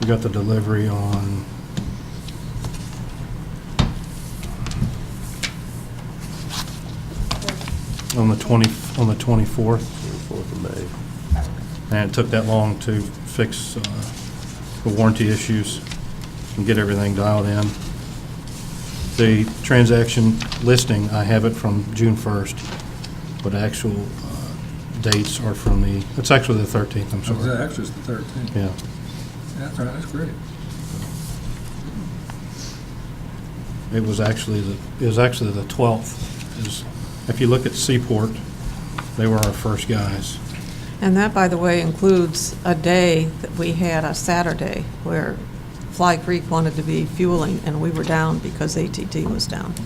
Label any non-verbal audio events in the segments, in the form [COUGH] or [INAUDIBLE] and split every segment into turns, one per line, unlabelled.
We got the delivery on, on the 20, on the 24th,
4th of May.
and it took that long to fix uh, the warranty issues and get everything dialed in. The transaction listing, I have it from June 1st, but actual uh, dates are from the, it's actually the 13th, I'm
So
sorry.
that actually is the 13th.
Yeah.
That's all right, that's great.
It was actually, the it was actually the 12th. Is- If you look at Seaport, they were our first guys.
And that, by the way, includes a day that we had, a Saturday, where Fly Creek wanted to be fueling, and we were down because ATT was down. [LAUGHS]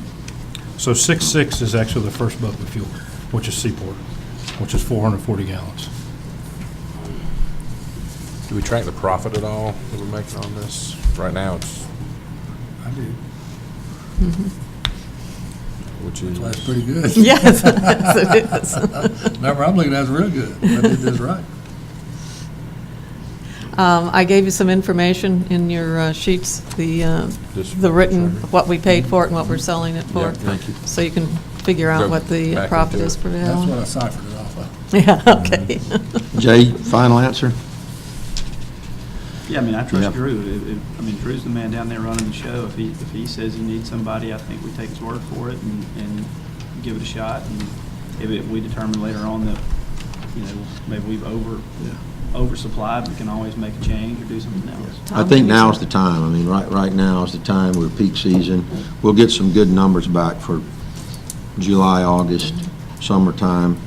So 6-6 is actually the first boat we fueled, which is Seaport, which is 440 gallons.
Do we track the profit at all that we're making on this? Right now, it's,
I do.
which is,
That's pretty
[LAUGHS]
good.
Yes, yes, it is.
Number I'm looking at is real good. I did this right.
Um, I gave you some information in your uh, sheets, the, uh,
Just-
the written, what we paid for it and what we're selling it for.
Mm-hmm. Yeah, thank you.
So you can figure out
Go
what the
back
profit
into
is
it. Mm-hmm.
for the
That's what
gallon.
I ciphered it off of.
[LAUGHS] Yeah, okay.
Jay, final answer?
Yeah, I mean, I
Yeah.
trust Drew. If- if- I mean, Drew's the man down there running the show. If he, if he says he needs somebody, I think we take his word for it and, and give it a shot. And if it, we determine later on that, you know, maybe we've over, oversupplied, we can always make a change or do something else.
I think now is the time. I mean, right, right now is the time. We're peak season. We'll get some good numbers back for July, August, summertime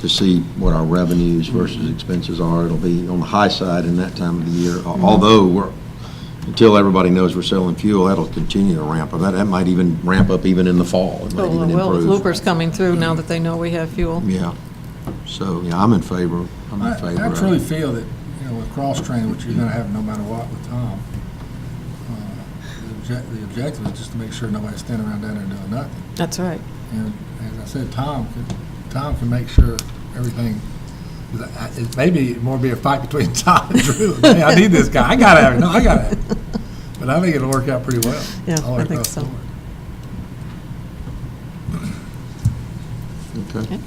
to see what our revenues versus expenses are. It'll be on the high side in that time of the year. Al- Although we're, until everybody knows we're selling fuel, that'll continue to ramp up. That, that might even ramp up even in the fall. It might
Well,
even
Oh, well,
improve.
Looper's coming through now that they know we have fuel.
Yeah. So, yeah, I'm in favor. I'm in favor.
I I
of it.
truly feel that, you know, with cross-training, which you're gonna have no matter what with Tom, uh, the obje- the objective is just to make sure nobody's standing around down there doing nothing.
That's right.
And as I said, Tom, could- Tom can make sure everything, it may be more be a fight between [LAUGHS] Tom and Drew. Hey, I need this guy, I gotta have it, no, I gotta have it. But I think it'll work out pretty well.
Yeah,
all
I think
across the
so.
board.
Okay.
Okay.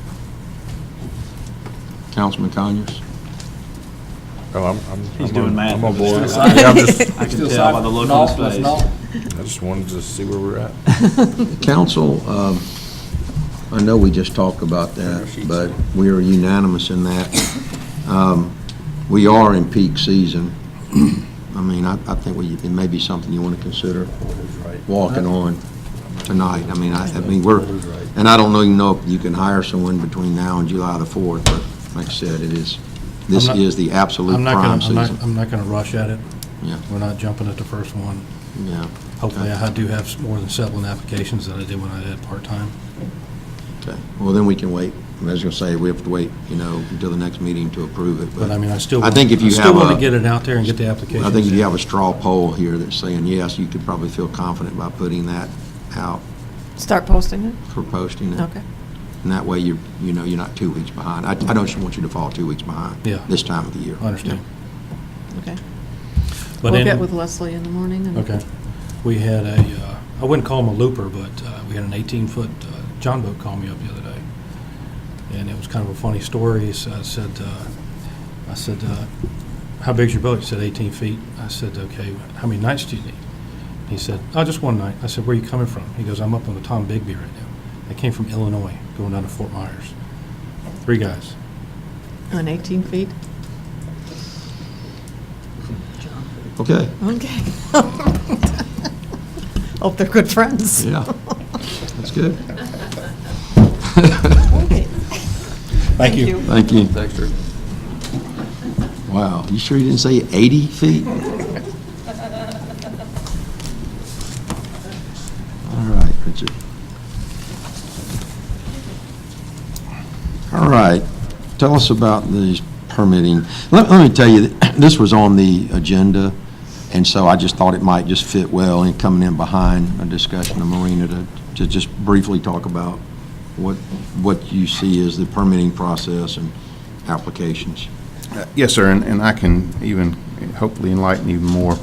Councilman Conyers?
oh, I'm, I'm.
He's
I'm
doing
on-
math.
I'm on board.
[LAUGHS]
Still
Yeah, I'm just,
I can
Still
tell by the look on
Naught
his
plus
face.
naught.
I just wanted to see where we're at.
Council, um, I know we just talked about that, but we are unanimous in that. Um, We are in peak season. I mean, I I think we- it may be something you want to consider walking on tonight. I mean, I I mean, we're, and I don't even know if you can hire someone between now and July the 4th, but like I said, it is, this
I'm not-
is the absolute
I'm not
prime
gonna, I'm not,
season.
I'm not gonna rush at it.
Yeah.
We're not jumping at the first one.
Yeah.
Hopefully, I do have more than seven applications that I did when I did part-time.
Okay. Well, then we can wait. I was going to say, we have to wait, you know, until the next meeting to approve it.
But I mean, I still.
I think if you
I
have
still want
a-
to get it out there and get the applications.
I think if
in.
you have a straw poll here that's saying yes, you could probably feel confident by putting that out
Start posting it?
for posting it.
Okay.
And that way, you, you know, you're not two weeks behind. I, I don't just want you to fall two weeks behind.
Yeah.
This time of the year.
I understand.
Okay.
But
We'll
in-
get with Leslie in the morning and.
Okay. We had a, uh, I wouldn't call him a looper, but uh, we had an 18-foot uh, John boat call me up the other day. And it was kind of a funny story. He s- I said, uh, I said, uh, how big's your boat? He said, 18 feet. I said, okay, how many nights do you need? He said, oh, just one night. I said, where are you coming from? He goes, I'm up on the Tom Bigby right now. I came from Illinois, going down to Fort Myers. Three guys.
On 18 feet?
Okay.
Okay. [LAUGHS] Hope they're good friends.
Yeah.
[LAUGHS]
That's good.
Thank you.
Thank you. Thanks, Drew. Wow. You sure you didn't say 80 feet? All right, Richard. All right. Tell us about these permitting. Let, let me tell you, this was on the agenda, and so I just thought it might just fit well in coming in behind a discussion of Marina to, to just briefly talk about what, what you see as the permitting process and applications.
Uh, Yes, sir, and- and I can even hopefully enlighten you more.